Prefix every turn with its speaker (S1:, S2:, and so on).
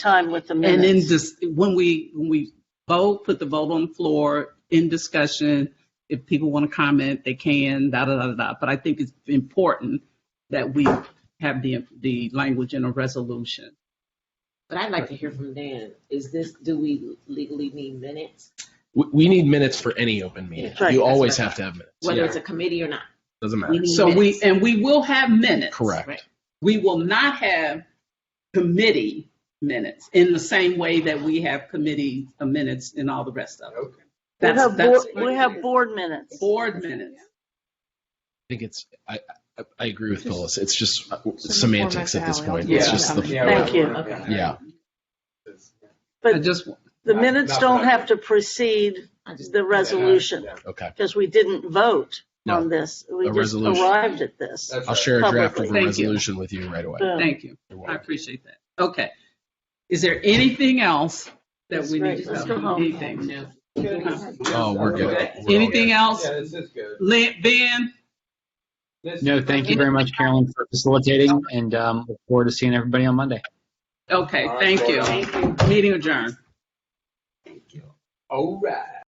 S1: time with the
S2: And then
S1: minutes.
S2: just, when we, when we vote, put the vote on the floor in discussion. If people want to comment, they can, da, da, da, da, da. But I think it's important that we have the, the language in a resolution.
S3: But I'd like to hear from Dan. Is this, do we legally need minutes?
S4: We, we need minutes for any open meeting.
S3: That's right,
S4: you
S3: that's
S4: always
S3: right.
S4: have to have minutes.
S3: Whether
S4: yeah,
S3: it's a committee or not?
S4: doesn't
S3: we
S4: matter.
S3: need
S2: So we,
S3: minutes.
S2: and we will have minutes.
S4: Correct.
S3: Right.
S2: We will not have committee minutes in the same way that we have committee minutes and all the rest of it.
S1: We'll
S2: That's,
S1: have,
S2: that's
S1: board- we'll have board minutes.
S2: board minutes.
S4: I think it's. I I, I agree with
S5: Just-
S4: Phyllis. It's just
S5: the
S4: semantics at
S5: format's
S4: this
S5: how we
S4: point.
S5: all
S4: It's
S5: do it.
S4: just the.
S5: Yeah.
S1: Thank you.
S3: Okay.
S4: Yeah.
S2: I
S1: But
S2: just,
S1: the minutes don't have to precede
S3: I just-
S1: the resolution,
S4: Okay.
S1: because we didn't vote
S4: No.
S1: on this. We
S4: A
S1: just
S4: resolution.
S1: arrived at this.
S4: I'll share a draft of
S1: Publicly.
S4: a
S2: Thank you.
S4: resolution with you right away.
S1: Boom.
S2: thank you.
S4: You're
S2: I
S4: welcome.
S2: appreciate that. Okay. Is there anything else that
S1: That's
S2: we
S1: right.
S2: need to
S1: Let's
S2: cover?
S1: go home.
S2: Anything?
S4: Oh, we're good.
S2: Okay.
S4: We're all
S2: Anything
S4: good.
S2: else?
S6: Yeah, this is good.
S2: Lynn, Ben,
S6: This-
S7: No, thank you very much, Carolyn, for facilitating, and um, look forward to seeing everybody on Monday.
S2: okay,
S6: All right,
S2: thank
S6: go
S2: you.
S6: ahead.
S2: Meeting adjourned.
S6: All right.